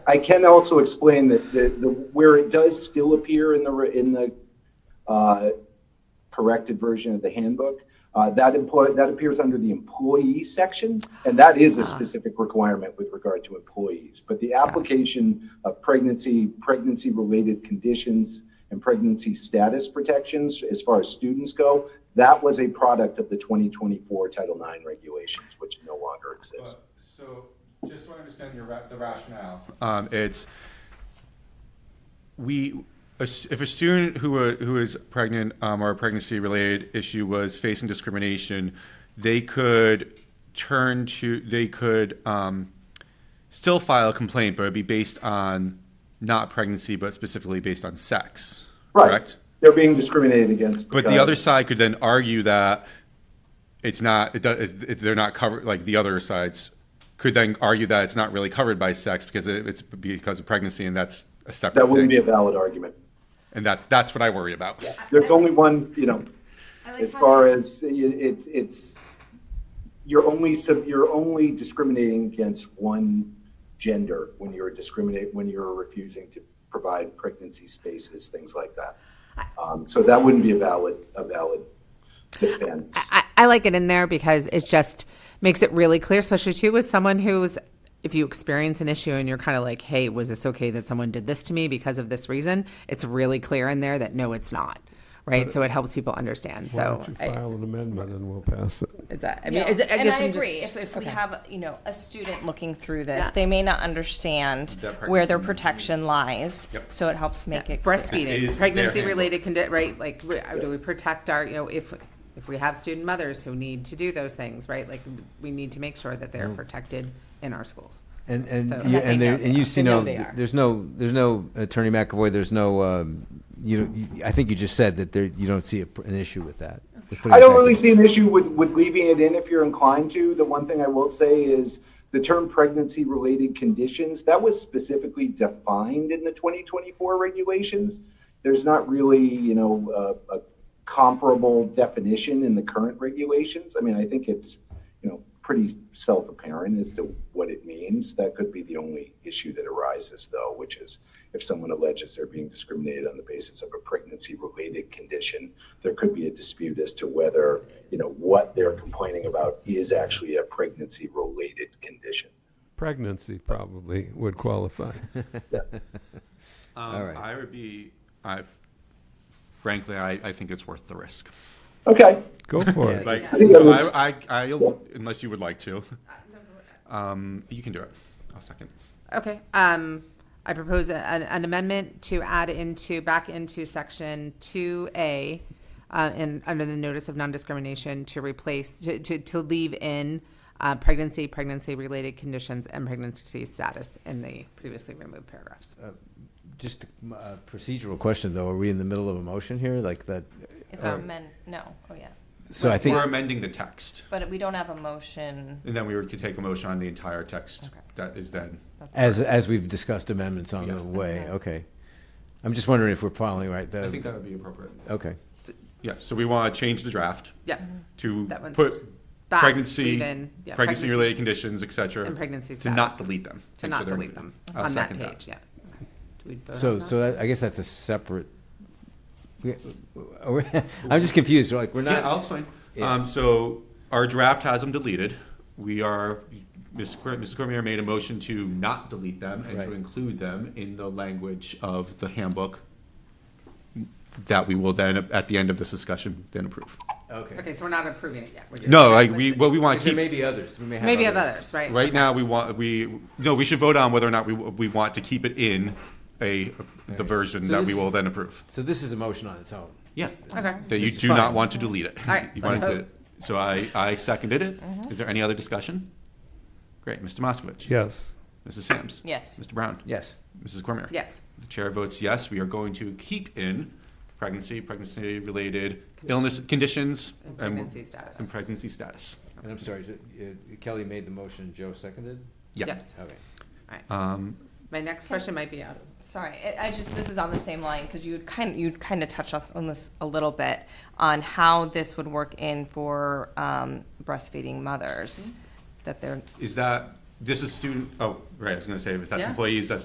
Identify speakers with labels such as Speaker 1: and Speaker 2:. Speaker 1: I can also explain that the, the, where it does still appear in the, re- in the, uh, corrected version of the handbook, uh, that employ, that appears under the employee section, and that is a specific requirement with regard to employees. But the application of pregnancy, pregnancy-related conditions and pregnancy status protections, as far as students go, that was a product of the 2024 Title IX regulations, which no longer exist.
Speaker 2: So, just so I understand your, ra- the rationale. Um, it's, we, a s- if a student who, wa- who is pregnant, um, or a pregnancy-related issue was facing discrimination, they could turn to, they could, um, still file a complaint, but it'd be based on not pregnancy, but specifically based on sex, correct?
Speaker 1: They're being discriminated against.
Speaker 2: But the
Speaker 1: because-
Speaker 2: other side could then argue that it's not, it does, it, they're not covered, like the other sides could then argue that it's not really covered by sex because it, it's because of pregnancy and that's a separate
Speaker 1: That wouldn't be
Speaker 2: thing.
Speaker 1: a valid argument.
Speaker 2: And that's, that's what I worry about.
Speaker 1: There's only one, you know,
Speaker 3: I like
Speaker 1: as
Speaker 3: how
Speaker 1: far
Speaker 3: you-
Speaker 1: as it, it- it's, you're only, sub- you're only discriminating against one gender when you're discriminate, when you're refusing to provide pregnancy spaces, things like that. Um, So that wouldn't be a valid, a valid defense.
Speaker 4: I, I like it in there because it just makes it really clear, especially too with someone who's, if you experience an issue and you're kind of like, hey, was this okay that someone did this to me because of this reason? It's really clear in there that no, it's not. Right. so it helps people understand.
Speaker 5: Why don't
Speaker 4: So
Speaker 5: you
Speaker 4: I,
Speaker 5: file an amendment and we'll pass it?
Speaker 4: it's that. I mean,
Speaker 6: Yeah.
Speaker 4: it's, I
Speaker 6: and
Speaker 4: guess
Speaker 6: I
Speaker 4: I'm
Speaker 6: agree.
Speaker 4: just-
Speaker 6: if if we
Speaker 4: okay.
Speaker 6: have you know a student looking through this,
Speaker 4: Yeah.
Speaker 6: they may not understand
Speaker 2: That
Speaker 6: where their
Speaker 2: pregnancy-
Speaker 6: protection lies.
Speaker 2: Yep.
Speaker 6: So it helps make it clear.
Speaker 2: This is
Speaker 4: breastfeeding,
Speaker 2: their
Speaker 4: pregnancy related condi, right? Like, we- do we protect our, you know, if, if we have student mothers who need to do those things, right? Like, we need to make sure that
Speaker 5: Mm-hmm.
Speaker 4: they're protected in our schools.
Speaker 7: And and
Speaker 4: So-
Speaker 7: you,
Speaker 4: That they
Speaker 7: and,
Speaker 4: know
Speaker 7: there, and
Speaker 4: they
Speaker 7: you
Speaker 4: are.
Speaker 7: see
Speaker 4: They know
Speaker 7: no,
Speaker 4: they are.
Speaker 7: there's no there's no attorney McAvoy. There's no um, you, know, you. I think you just said that there you don't see a, pr- an issue with that. Let's put it
Speaker 1: I don't
Speaker 7: back
Speaker 1: really
Speaker 7: in.
Speaker 1: see an issue with, with leaving it in if you're inclined to. The one thing I will say is the term pregnancy related conditions, that was specifically defined in the 2024 regulations. There's not really, you know, a, a comparable definition in the current regulations. I mean, I think it's, you know, pretty self apparent as to what it means. That could be the only issue that arises, though, which is if someone alleges they're being discriminated on the basis of a pregnancy related condition, there could be a dispute as to whether, you know, what they're complaining about is actually a pregnancy related condition.
Speaker 5: Pregnancy probably would qualify.
Speaker 7: All right.
Speaker 2: Um, I would be, I, frankly, I, I think it's worth the risk.
Speaker 1: Okay.
Speaker 5: Go for it.
Speaker 2: Like,
Speaker 1: I think that
Speaker 2: so
Speaker 1: looks-
Speaker 2: I, I, I'll, unless you would like to, um, you can do it. I'll second.
Speaker 4: Okay, um, I propose a- an, an amendment to add into, back into section two A, uh, in, under the notice of non-discrimination to replace, to, to, to leave in, uh, pregnancy, pregnancy-related conditions and pregnancy status in the previously removed paragraphs.
Speaker 2: Uh,
Speaker 7: Just a procedural question though. Are we in the middle of a motion here? Like that.
Speaker 6: It's
Speaker 7: or-
Speaker 6: a men. No. Oh yeah.
Speaker 7: so I think
Speaker 2: We're amending the text.
Speaker 6: But we don't have a motion.
Speaker 2: And then we would could take a motion on the entire text
Speaker 6: Okay.
Speaker 2: that is then.
Speaker 7: as as we've discussed amendments on
Speaker 2: Yeah.
Speaker 7: the way. Okay. I'm just wondering if we're filing right. The,
Speaker 2: I think that would be appropriate.
Speaker 7: okay.
Speaker 2: Yeah, so we want to change the draft
Speaker 4: Yeah,
Speaker 2: to
Speaker 4: That one's
Speaker 2: put
Speaker 4: back,
Speaker 2: pregnancy,
Speaker 4: leave in, yeah, pregnancy.
Speaker 2: pregnancy-related conditions, et cetera.
Speaker 4: And pregnancy
Speaker 2: To not
Speaker 4: status.
Speaker 2: delete them.
Speaker 4: to
Speaker 2: Make
Speaker 4: not
Speaker 2: sure they're-
Speaker 4: delete them
Speaker 2: I'll
Speaker 4: on that
Speaker 2: second
Speaker 4: page, yeah. Okay. Do we vote
Speaker 7: So
Speaker 4: on that?
Speaker 7: so that, I guess that's a separate. we- are we- I'm just confused. Like we're not.
Speaker 2: Yeah, I'll explain.
Speaker 7: Yeah.
Speaker 2: Um, so our draft has them deleted. We are, Mrs. Cor- Mrs. Cormier made a motion to not delete them and to
Speaker 7: Right.
Speaker 2: include them in the language of the handbook that we will then, at the end of this discussion, then approve.
Speaker 7: okay.
Speaker 4: Okay, so we're not approving it yet. we're just-
Speaker 2: No, like, we, what we want to
Speaker 7: There
Speaker 2: keep.
Speaker 7: may be others. We may have
Speaker 4: Maybe of
Speaker 7: others.
Speaker 4: others, right?
Speaker 2: Right now, we want, we, no, we should vote on whether or not we, we want to keep it in a, the version
Speaker 7: So
Speaker 2: that
Speaker 7: this-
Speaker 2: we will then approve.
Speaker 7: So this is a motion on its own.
Speaker 2: Yeah.
Speaker 4: Okay.
Speaker 2: That you
Speaker 7: It's
Speaker 2: do not
Speaker 7: fine.
Speaker 2: want to delete it.
Speaker 4: All right, Mm-hmm.
Speaker 2: You want
Speaker 4: let's
Speaker 2: to-
Speaker 4: vote.
Speaker 2: So I, I seconded it. Is there any other discussion? Great. Mr. Moskovich?
Speaker 5: Yes.
Speaker 2: Mrs. Sams?
Speaker 6: Yes.
Speaker 2: Mr. Brown?
Speaker 7: Yes.
Speaker 2: Mrs. Cormier?
Speaker 4: Yes.
Speaker 2: The chair votes yes. We are going to keep in pregnancy, pregnancy-related illness, conditions.
Speaker 4: And pregnancy status.
Speaker 2: And pregnancy status.
Speaker 7: And I'm sorry, is it, uh, Kelly made the motion, Joe seconded?
Speaker 2: Yeah.
Speaker 4: Yes,
Speaker 7: Okay.
Speaker 4: all right.
Speaker 2: Um,
Speaker 4: My next question might be out of
Speaker 6: Sorry, I, I just this is on the same line because you kind you kind of touched on, on this a little bit on how this would work in for um, breastfeeding
Speaker 4: Mm-hmm.
Speaker 6: mothers that they're
Speaker 2: Is that, this is student, oh, right, I was going to say, if that's
Speaker 4: Yeah.
Speaker 2: employees, that's